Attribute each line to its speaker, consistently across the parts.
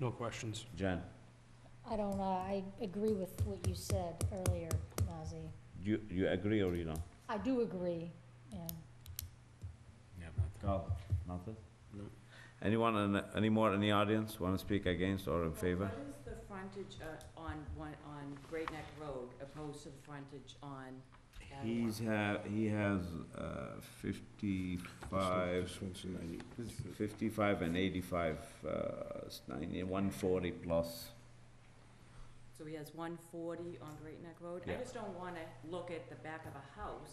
Speaker 1: No questions.
Speaker 2: Jen,
Speaker 3: I don't know, I agree with what you said earlier, Nazzy.
Speaker 2: do you, you agree or you don't?
Speaker 3: I do agree, and
Speaker 2: Carl, nothing? Anyone, in- any more in the audience want to speak against or in favor?
Speaker 4: What is the frontage uh, on one, on Great Neck Road opposed to the frontage on? Avenue?
Speaker 2: He's ha, he has, uh, fifty-five,
Speaker 5: This one's 90.
Speaker 2: fifty-five and eighty-five, uh, it's ninety, one forty plus.
Speaker 4: So he has one forty on Great Neck Road? I
Speaker 2: Yeah.
Speaker 4: just don't wanna look at the back of a house.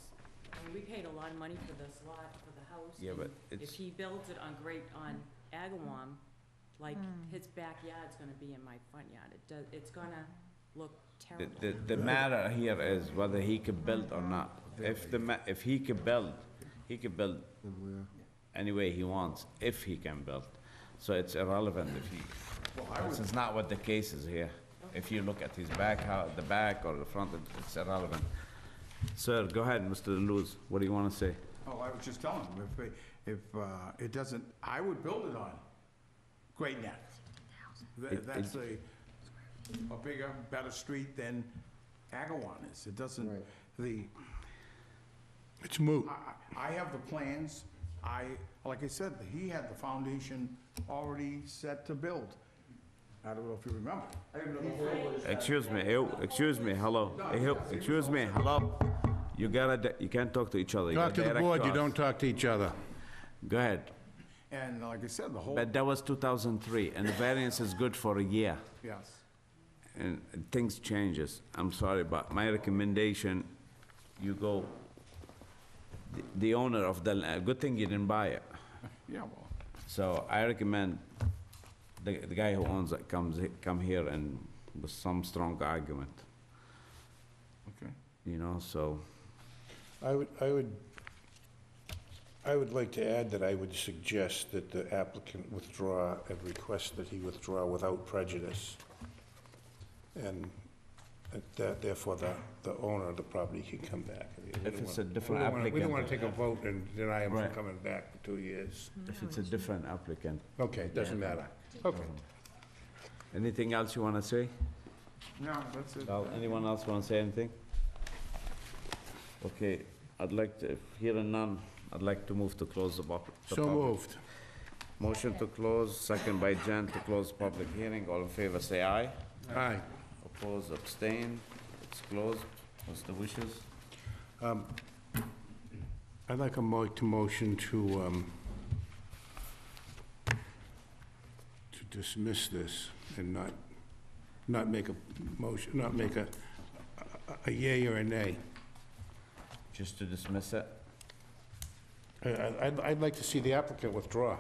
Speaker 4: I mean, we paid a lot of money for this lot, for the house.
Speaker 2: Yeah,
Speaker 4: and
Speaker 2: but
Speaker 4: If
Speaker 2: it's,
Speaker 4: he builds it on Great, on Agawam, like, his backyard's gonna be in my front yard. It does, it's gonna look
Speaker 2: the,
Speaker 4: terrible.
Speaker 2: the, the matter here is whether he can build or not. If the ma, if he can build, he can build
Speaker 5: And where?
Speaker 2: any way he wants, if he can build. So it's irrelevant if he, this is not what the case is here. If you look at his back, how, the back or the front, it- it's irrelevant. Sir, go ahead, Mr. Luz, what do you wanna say?
Speaker 6: Oh, I was just telling him, if, it- if uh, it doesn't, I would build it on Great Neck. Tha-
Speaker 2: It-
Speaker 6: That's a, a bigger, better street than Agawam is. It doesn't,
Speaker 5: Right.
Speaker 6: the,
Speaker 5: It's moot.
Speaker 6: I, I- I have the plans. I, like I said, he had the foundation already set to build. I don't know if you remember.
Speaker 2: Excuse me, ew, excuse me, hello, ew, excuse me, hello. You gotta, di- you can't talk to each other. you
Speaker 5: Talk to
Speaker 2: gotta
Speaker 5: the
Speaker 2: direct
Speaker 5: board, you
Speaker 2: us.
Speaker 5: don't talk to each other.
Speaker 2: Go ahead.
Speaker 6: And like I said, the whole,
Speaker 2: But that was 2003, and the variance is good for a year.
Speaker 6: yes.
Speaker 2: and things changes, I'm sorry, but my recommendation, you go, the- the owner of the, la- good thing you didn't buy it.
Speaker 6: Yeah, well,
Speaker 2: So I recommend the, the guy who owns it comes, he- come here and with some strong argument,
Speaker 6: okay.
Speaker 2: you know, so.
Speaker 7: I would, I would, I would like to add that I would suggest that the applicant withdraw and request that he withdraw without prejudice. And that therefore the, the owner of the property can come back. We don't
Speaker 2: If it's a
Speaker 7: wanna-
Speaker 2: different
Speaker 7: we don't wanna- We don't want
Speaker 2: applicant.
Speaker 7: to take a vote and deny him
Speaker 2: Right.
Speaker 7: from coming back for two years.
Speaker 2: If it's a different applicant.
Speaker 7: Okay, it doesn't matter. Okay.
Speaker 2: Anything else you wanna say?
Speaker 6: No, that's it.
Speaker 2: Well, Anyone else wanna say anything? Okay, I'd like to, if here and none, I'd like to move to close the pub- the
Speaker 5: So
Speaker 2: public.
Speaker 5: moved.
Speaker 2: Motion to close, second by Jen to close public hearing. All in favor, say aye.
Speaker 5: Aye.
Speaker 2: Oppose, abstain. It's closed. What's the wishes?
Speaker 5: I'd like a mo, to motion to, um, to dismiss this and not, not make a motion, not make a, a- a yay or a nay.
Speaker 2: Just to dismiss it?
Speaker 7: I, I- I'd, I'd like to see the applicant withdraw.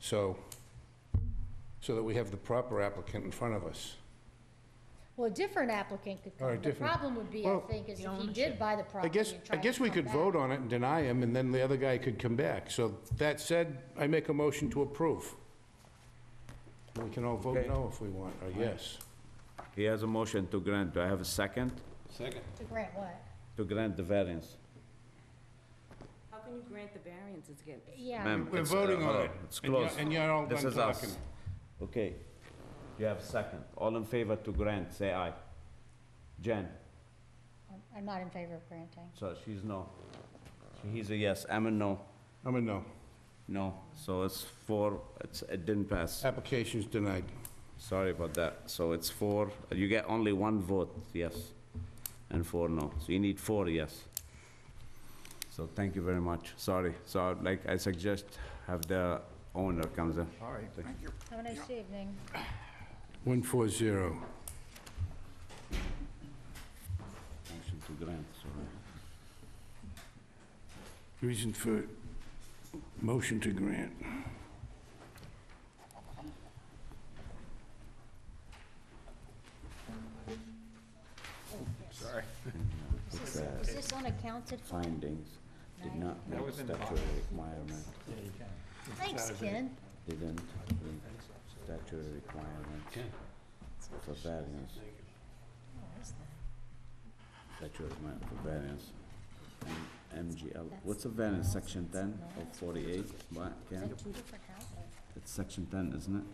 Speaker 7: So, so that we have the proper applicant in front of us.
Speaker 3: Well, a different applicant could
Speaker 7: All
Speaker 3: come.
Speaker 7: right,
Speaker 3: The
Speaker 7: different.
Speaker 3: problem would be, I
Speaker 7: Well-
Speaker 3: think, is if he did buy the
Speaker 7: I
Speaker 3: property
Speaker 7: guess,
Speaker 3: and
Speaker 7: I
Speaker 3: tried to
Speaker 7: guess we
Speaker 3: come
Speaker 7: could
Speaker 3: back.
Speaker 7: vote on it and deny him, and then the other guy could come back. So that said, I make a motion to approve. We can all vote
Speaker 2: Okay.
Speaker 7: no if we want, or yes.
Speaker 2: He has a motion to grant. Do I have a second?
Speaker 3: To grant what?
Speaker 2: To grant the variance.
Speaker 4: How can you grant the variances again?
Speaker 3: Yeah,
Speaker 2: Ma'am,
Speaker 7: We're
Speaker 2: it's, uh,
Speaker 7: voting on
Speaker 2: hello,
Speaker 7: it.
Speaker 2: It's
Speaker 7: And you're-
Speaker 2: closed.
Speaker 7: And you're all done
Speaker 2: This
Speaker 7: talking.
Speaker 2: is us. Okay. You have second. All in favor to grant, say aye. Jen,
Speaker 3: I'm- I'm not in favor of granting.
Speaker 2: so she's no. So He's a yes. I'm a no.
Speaker 7: I'm a no.
Speaker 2: No. So it's four, it's, it didn't pass.
Speaker 7: Application's denied.
Speaker 2: Sorry about that. So it's four, you get only one vote, yes, and four no. So you need four yes. So thank you very much. Sorry. So like I suggest, have the owner comes in.
Speaker 6: All right, thank you.
Speaker 3: Have a nice evening.
Speaker 7: 140.
Speaker 2: Motion to grant, sorry.
Speaker 5: Reason for motion to grant.
Speaker 3: Is this- is this unaccounted for?
Speaker 2: Findings did not meet statutory requirement,
Speaker 3: Thanks, Ken.
Speaker 2: didn't meet statutory requirements for variance,
Speaker 3: Oh, that's nice.
Speaker 2: statutory requirement for variance. And MGL, what's a variance, section ten of forty-eight, what, Ken?
Speaker 3: Two different houses. Oh,
Speaker 2: It's section ten, isn't it?